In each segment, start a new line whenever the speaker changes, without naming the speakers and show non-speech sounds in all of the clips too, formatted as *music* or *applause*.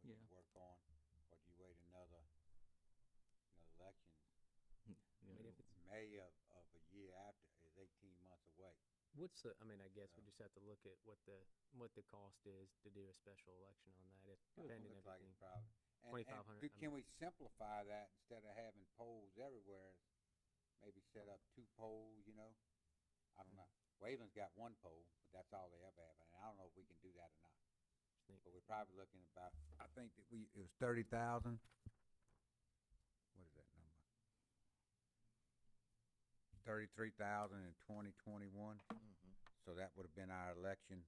on, or do you wait another, another election?
I mean, if it's,
May of, of a year after is eighteen months away.
what's the, I mean, I guess we
Yeah.
just have to look at what the, what the cost is to do a special election on that, if,
It
depending
looks like it's
everything.
probably- and- and do-
2,500, I
Can we simplify that instead of having poles everywhere, maybe set up two poles, you know? I don't know. Wayland's got one pole, but that's all they ever have, and I don't know if we can do that or not.
Think-
But we're probably looking about, I think that we, it was thirty thousand. What is that number? Thirty-three thousand in twenty twenty-one, so that would have been our election.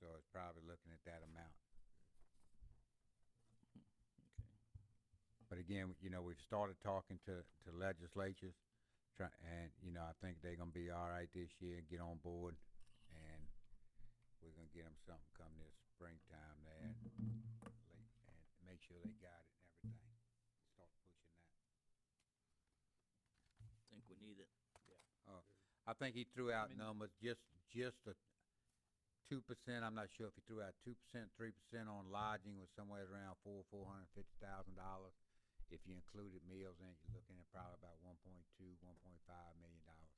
So it's probably looking at that amount. But again, you know, we've started talking to, to legislatures, try, and, you know, I think they're gonna be all right this year, get on board, and we're gonna get them something come this springtime there, and, like, and make sure they got it and everything, start pushing that.
Think we need it.
I think he threw out
mean-
numbers, just, just a two percent, I'm not sure if he threw out two percent, three percent on lodging was somewhere around four, four hundred and fifty thousand dollars. If you included meals in, it, you're looking at probably about one point two, one point five million dollars.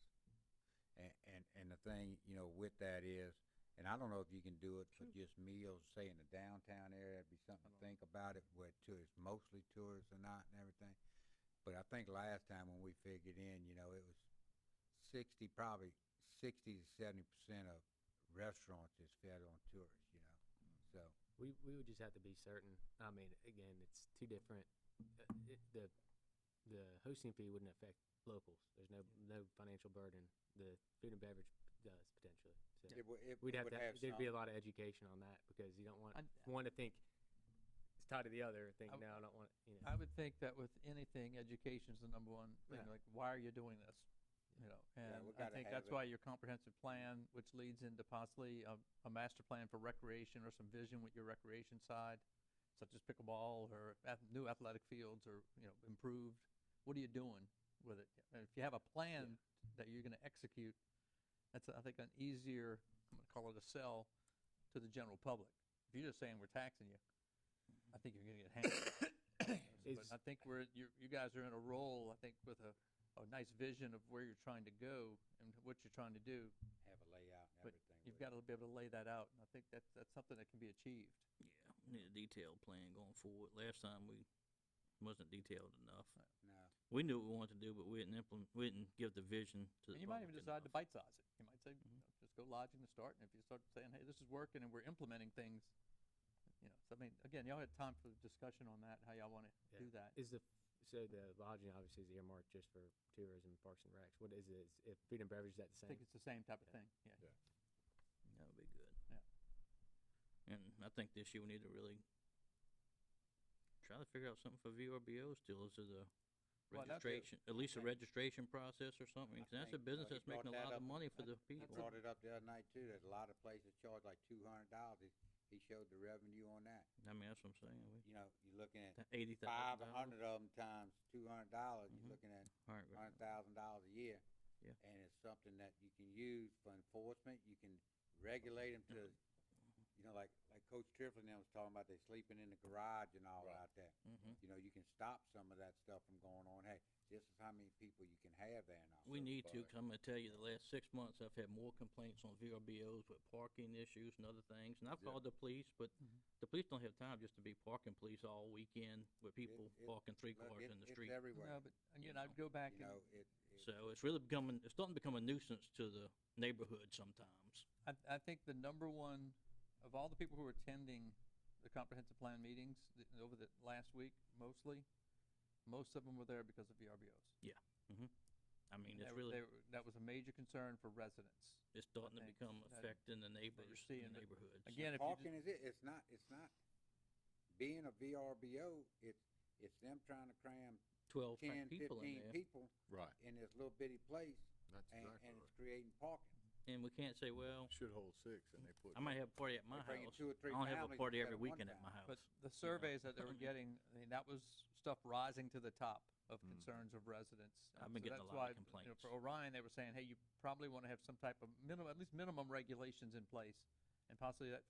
And, and, and the thing, you know, with that is, and I don't know if you can do it for just meals, say in the downtown area, that'd be something to think about it, where tourists, mostly tourists or not and everything. But I think last time when we figured in, you know, it was sixty, probably sixty to seventy percent of restaurants is fed on tourists, you know, so.
We, we would just have to be certain, I mean, again, it's two different, uh, it, the, the hosting fee wouldn't affect locals, there's no, no financial burden, the food and beverage does potentially, so. We'd have to, there'd be a lot of education on that, because you don't want,
I-
one to think it's tied to the other, and think,
I-
no, I don't want, you know.
I would think that with anything, education's the number one thing,
Yeah.
like, why are you doing this? You know,
Yeah, we
and I
gotta
think
have it.
that's why your comprehensive plan, which leads into possibly a, a master plan for recreation or some vision with your recreation side, such as pickleball or ath- new athletic fields or, you know, improved, what are you doing with it? And if you have a plan that you're gonna execute, that's, I think, an easier, I'm gonna call it a sell to the general public. If you're just saying we're taxing you, I think you're gonna get hammered. But
It's-
I think we're, you, you guys are in a role, I think, with a, a nice vision of where you're trying to go and what you're trying to do.
Have a layout and
but
everything.
You've
with
got to be able to lay that out, and I think that's, that's something that can be achieved.
Yeah, we need a detailed plan going forward. Last time we wasn't detailed enough.
it. No,
We knew what we wanted to do, but we didn't implement, we didn't give the vision to the
And you might even
public
decide to
enough.
bite size it. You might say, you know, just go lodging to start, and if you start saying, hey, this is working and we're implementing things, you know, so I mean, again, y'all had time for discussion on that, how y'all want
Yeah.
to do that.
Is the, so the lodging obviously is earmarked just for tourism, parks and recs. What is it? Is If food and beverage, is that the
I
same?
think it's the same type of
Yeah.
thing, yeah.
That would be good.
Yeah.
And I think this year we need to really try to figure out something for VRBO still. Is it a
Well, that's a-
registration, at least a
Okay.
registration process or something?
I
'Cause that's a
think, uh,
business
he
that's
brought
making a
that
lot
up.
of money for the
he
people.
brought it up the other night too, there's a lot of places charge like two hundred dollars, he showed the revenue on that.
I mean, that's what I'm saying. We,
You know, you're looking at
eighty
five
thousand dollars.
hundred of them times two hundred dollars, you're
Mm-hmm.
Mhm.
looking at
All right,
hundred thousand dollars a year.
Yeah.
And it's something that you can use for enforcement, you can regulate them to, you know, like, like Coach Triplin and them was talking about, they sleeping in the garage and all out there.
Mm-hmm.
You know, you can stop some of that stuff from going on, hey, this is how many people you can have there and all.
We
So-
need to, 'cause I'm gonna tell you, the last six months, I've had more complaints on VRBOs with parking issues and other things, and I've
Yeah.
called the police, but
Mhm.
the police don't have time just to be parking police all weekend with people
it-
parking three
Look,
cars
it-
in the
It's
street.
everywhere,
No, but again,
know,
I'd go back
you
and
know, it, it-
So it's really becoming, it's starting to become a nuisance to the neighborhood sometimes.
I, I think the number one, of all the people who were attending the comprehensive plan meetings th- over the last week mostly, most of them were there because of VRBOs.
I mean,
They
it's
were- they
really,
were- That was a major concern for residents.
it's starting to
think
become
that-
affecting the neighbors, the
seeing it.
neighborhoods.
Again, if you
Parking
just,
is it, it's not, it's not, being a VRBO, it's, it's them trying to cram
Twelve pa-
ten,
people
fifteen
in there,
people
Right,
in this little bitty place,
that's
and,
exactly
and
right.
it's creating parking.
and we can't say, well,
Should hold six and they put.
I might have a party at my
They bring in
house.
two or
I
three
don't have a
families
party
instead
every
of one
weekend at my
family.
house.
but the surveys that they
*clears throat*
were getting, I mean, that was stuff rising to the top of
Mm.
concerns of residents.
I've
And
been
so
getting a lot
that's
of
why, you know,
complaints.
For Orion, they were saying, hey, you probably want to have some type of minimum, at least minimum regulations in place, and possibly that